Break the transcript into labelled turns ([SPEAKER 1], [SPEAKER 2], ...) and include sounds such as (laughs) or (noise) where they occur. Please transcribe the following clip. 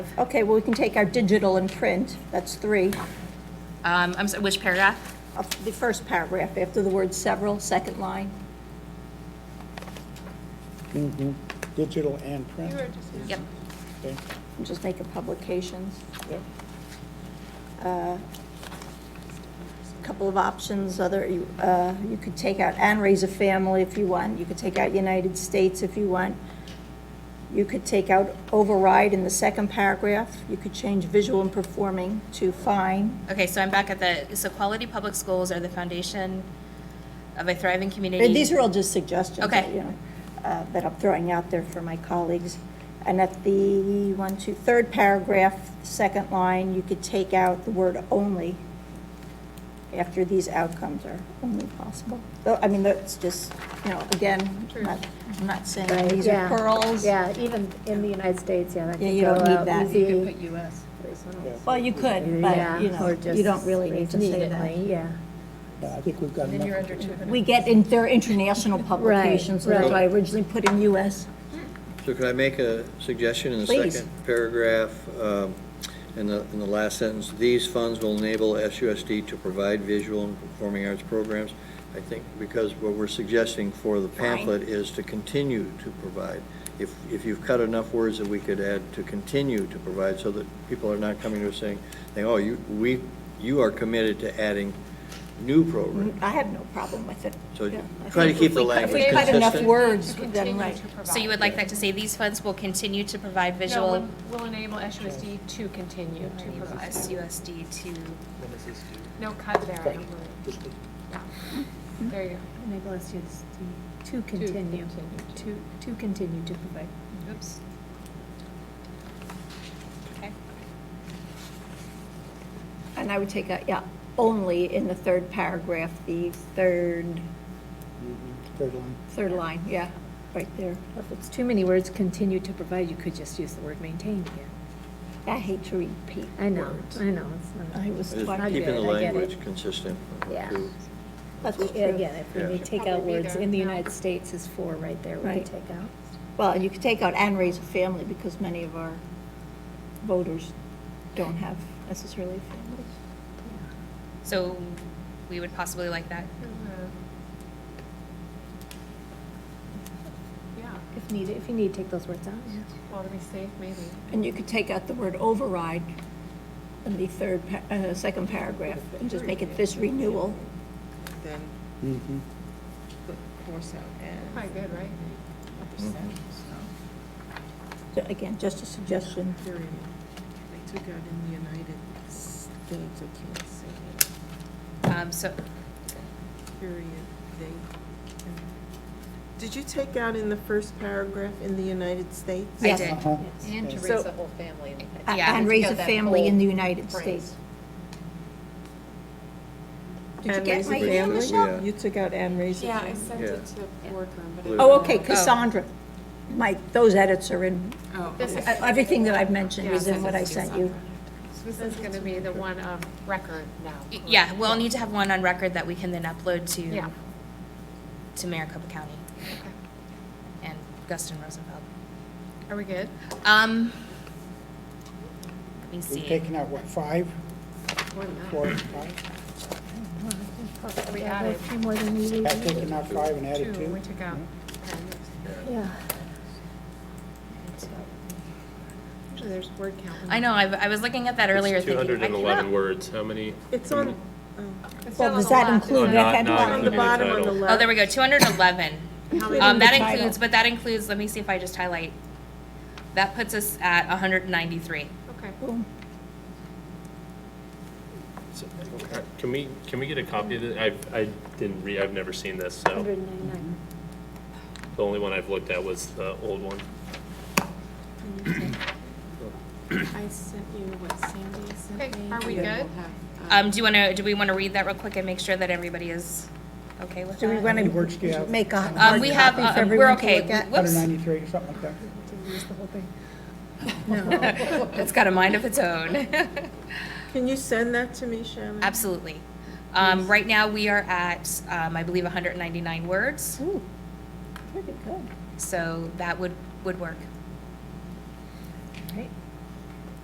[SPEAKER 1] Okay, well, we can take our digital and print, that's three.
[SPEAKER 2] Um, I'm sorry, which paragraph?
[SPEAKER 1] Up to The first paragraph, after the word several, second line.
[SPEAKER 3] Digital and print,
[SPEAKER 2] Yep.
[SPEAKER 3] okay,
[SPEAKER 1] and Just make it publications.
[SPEAKER 3] yep.
[SPEAKER 1] Couple of options, other, you uh, you could take out and raise a family if you want. You could take out United States if you want. You could take out override in the second paragraph. You could change visual and performing to fine.
[SPEAKER 2] Okay, so I'm back at the, so quality public schools are the foundation of a thriving
[SPEAKER 1] Uh,
[SPEAKER 2] community.
[SPEAKER 1] These are all just suggestions.
[SPEAKER 2] Okay.
[SPEAKER 1] you know, uh, That I'm throwing out there for my colleagues. And at the one, two, third paragraph, second line, you could take out the word only after these outcomes are only possible. Though, I mean, that's just, you know, again, I'm not- I'm not saying these are
[SPEAKER 4] Yeah.
[SPEAKER 1] pearls.
[SPEAKER 4] Yeah, even in the United States, yeah, that
[SPEAKER 1] Yeah,
[SPEAKER 4] could
[SPEAKER 1] you
[SPEAKER 4] go
[SPEAKER 1] don't need
[SPEAKER 4] out
[SPEAKER 1] that.
[SPEAKER 4] easy.
[SPEAKER 5] You could put US.
[SPEAKER 1] Well, you could, but, you
[SPEAKER 4] Yeah, or
[SPEAKER 1] know,
[SPEAKER 4] just
[SPEAKER 1] you don't really need to say that.
[SPEAKER 4] immediately, Yeah,
[SPEAKER 3] Yeah, I think we've got
[SPEAKER 5] Then you're
[SPEAKER 3] enough.
[SPEAKER 5] under 200.
[SPEAKER 1] We get in, they're international publications, so that's why I originally put in US.
[SPEAKER 6] So could I make a suggestion in the
[SPEAKER 1] Please.
[SPEAKER 6] second paragraph, um, in the, in the last sentence? These funds will enable SUSD to provide visual and performing arts programs. I think because what we're suggesting for the pamphlet is to continue to provide. If, if you've cut enough words that we could add to continue to provide, so that people are not coming to us saying, saying, oh, you, we, you are committed to adding new programs.
[SPEAKER 1] Mm, I have no problem with it.
[SPEAKER 6] So
[SPEAKER 1] Yeah, I
[SPEAKER 6] try to
[SPEAKER 1] think
[SPEAKER 6] keep
[SPEAKER 1] if
[SPEAKER 6] the
[SPEAKER 1] we cut-
[SPEAKER 6] language
[SPEAKER 1] If we cut enough
[SPEAKER 6] consistent.
[SPEAKER 1] words,
[SPEAKER 5] To
[SPEAKER 1] then
[SPEAKER 5] continue
[SPEAKER 1] right.
[SPEAKER 5] to provide.
[SPEAKER 2] So you would like that to say, these funds will continue to provide
[SPEAKER 5] No,
[SPEAKER 2] visual.
[SPEAKER 5] will- will enable SUSD to continue to provide.
[SPEAKER 2] SUSD to,
[SPEAKER 5] No cut there, I don't believe. There you go.
[SPEAKER 4] enable us to, to continue, to, to continue to provide.
[SPEAKER 5] Oops.
[SPEAKER 2] okay.
[SPEAKER 1] And I would take out, yeah, only in the third paragraph, the third,
[SPEAKER 3] Third line.
[SPEAKER 1] third line, yeah, right there.
[SPEAKER 4] If it's too many words, continue to provide, you could just use the word maintain here.
[SPEAKER 1] I hate to repeat.
[SPEAKER 4] I know,
[SPEAKER 6] Words.
[SPEAKER 4] I know, it's not.
[SPEAKER 1] I was
[SPEAKER 6] Just
[SPEAKER 4] I
[SPEAKER 1] trying
[SPEAKER 4] get
[SPEAKER 6] keeping
[SPEAKER 4] it,
[SPEAKER 6] the
[SPEAKER 4] I get it.
[SPEAKER 6] language consistent.
[SPEAKER 4] Yeah.
[SPEAKER 6] to-
[SPEAKER 1] That's
[SPEAKER 4] Yeah,
[SPEAKER 1] true.
[SPEAKER 4] Again, if we
[SPEAKER 6] Yeah.
[SPEAKER 4] may
[SPEAKER 6] Should
[SPEAKER 4] take out
[SPEAKER 5] probably be
[SPEAKER 4] words,
[SPEAKER 5] there.
[SPEAKER 4] in the
[SPEAKER 5] No.
[SPEAKER 4] United States is four right there, we
[SPEAKER 1] Right.
[SPEAKER 4] could take out.
[SPEAKER 1] Well, you could take out and raise a family because many of our voters don't have necessarily families.
[SPEAKER 2] So we would possibly like that. Mm-hmm.
[SPEAKER 5] Yeah,
[SPEAKER 4] If needed, if you need, take those words out.
[SPEAKER 5] well, to be safe, maybe.
[SPEAKER 1] And you could take out the word override in the third, pa- uh, second paragraph and just make it this renewal.
[SPEAKER 7] then
[SPEAKER 3] Mm-hmm.
[SPEAKER 7] put course out as
[SPEAKER 5] Probably good, right?
[SPEAKER 7] a percent,
[SPEAKER 1] So Again, just a suggestion.
[SPEAKER 7] so period. They took out in the United States, I can't say it,
[SPEAKER 2] Um, so,
[SPEAKER 7] period, they. Did you take out in the first paragraph in the United States?
[SPEAKER 2] I did.
[SPEAKER 3] Uh-huh.
[SPEAKER 5] And to
[SPEAKER 7] raise the
[SPEAKER 5] whole family.
[SPEAKER 1] A-
[SPEAKER 2] Yeah.
[SPEAKER 1] And raise a family in the United States. Did you
[SPEAKER 7] And
[SPEAKER 1] get
[SPEAKER 7] raise a
[SPEAKER 1] my email,
[SPEAKER 7] family?
[SPEAKER 1] Michelle?
[SPEAKER 6] Yeah.
[SPEAKER 7] You took out and raised
[SPEAKER 5] Yeah, I
[SPEAKER 7] family?
[SPEAKER 5] sent it to the boardroom, but.
[SPEAKER 1] Oh, okay, Cassandra. Mike, those edits are in,
[SPEAKER 5] Oh, This is,
[SPEAKER 1] uh, everything that I've mentioned
[SPEAKER 5] Yeah,
[SPEAKER 1] is in
[SPEAKER 5] so
[SPEAKER 1] what I
[SPEAKER 5] this is
[SPEAKER 1] sent you.
[SPEAKER 5] this is gonna be the one of record now.
[SPEAKER 2] y- yeah, we'll need to have one on record that we can then upload to.
[SPEAKER 5] Yeah.
[SPEAKER 2] To Maricopa County
[SPEAKER 5] Okay.
[SPEAKER 2] and Guston Rosenfeld.
[SPEAKER 5] Are we good?
[SPEAKER 2] Um, let me
[SPEAKER 3] We've
[SPEAKER 2] see.
[SPEAKER 3] taken out, what, five,
[SPEAKER 5] We're not.
[SPEAKER 3] four, five?
[SPEAKER 5] We
[SPEAKER 4] Yeah,
[SPEAKER 5] added
[SPEAKER 4] A few more than we need.
[SPEAKER 3] Have taken out five and added
[SPEAKER 5] two,
[SPEAKER 3] two?
[SPEAKER 5] we took out ten.
[SPEAKER 4] Yeah,
[SPEAKER 5] Usually there's word count.
[SPEAKER 2] I know, I, I was looking at that earlier
[SPEAKER 8] It's
[SPEAKER 2] thinking. I
[SPEAKER 8] 211
[SPEAKER 2] cannot-
[SPEAKER 8] words, how many?
[SPEAKER 7] It's on, oh,
[SPEAKER 5] It's
[SPEAKER 1] Well,
[SPEAKER 5] down on
[SPEAKER 1] does
[SPEAKER 5] the
[SPEAKER 1] that
[SPEAKER 5] left,
[SPEAKER 1] include
[SPEAKER 5] isn't it?
[SPEAKER 8] No, Oh, not-
[SPEAKER 1] rec ed
[SPEAKER 8] not
[SPEAKER 7] on
[SPEAKER 1] one?
[SPEAKER 7] the
[SPEAKER 8] the
[SPEAKER 7] bottom on
[SPEAKER 8] title.
[SPEAKER 7] the left.
[SPEAKER 2] Oh, there we go, 211.
[SPEAKER 5] How many-
[SPEAKER 2] Um, that
[SPEAKER 1] the title.
[SPEAKER 2] includes, but that includes, let me see if I just highlight, that puts us at 193.
[SPEAKER 5] Okay.
[SPEAKER 1] Boom.
[SPEAKER 8] Can we, can we get a copy of this? I, I didn't read, I've never seen this, so
[SPEAKER 4] hundred and ninety-nine.
[SPEAKER 8] the only one I've looked at was the old one.
[SPEAKER 9] I sent you what Sandy sent me.
[SPEAKER 5] Okay, are we
[SPEAKER 9] and
[SPEAKER 5] good?
[SPEAKER 9] we'll have,
[SPEAKER 1] Ah.
[SPEAKER 2] Um, do you want to, do we want to read that real quick and make sure that everybody is okay with
[SPEAKER 1] Do we
[SPEAKER 2] that?
[SPEAKER 1] want
[SPEAKER 3] It works, yeah.
[SPEAKER 1] to make a
[SPEAKER 2] Um,
[SPEAKER 1] hard
[SPEAKER 2] we have,
[SPEAKER 1] copy for
[SPEAKER 2] uh, we're
[SPEAKER 1] everyone to
[SPEAKER 2] okay.
[SPEAKER 1] look at?
[SPEAKER 2] Whoops,
[SPEAKER 3] 193, something like that.
[SPEAKER 2] it's got a mind of its own. (laughs)
[SPEAKER 7] Can you send that to me, Shannon?
[SPEAKER 2] Absolutely. Um, right now, we are at, um, I believe, 199 words,
[SPEAKER 1] Ooh, pretty good.
[SPEAKER 2] so that would, would work.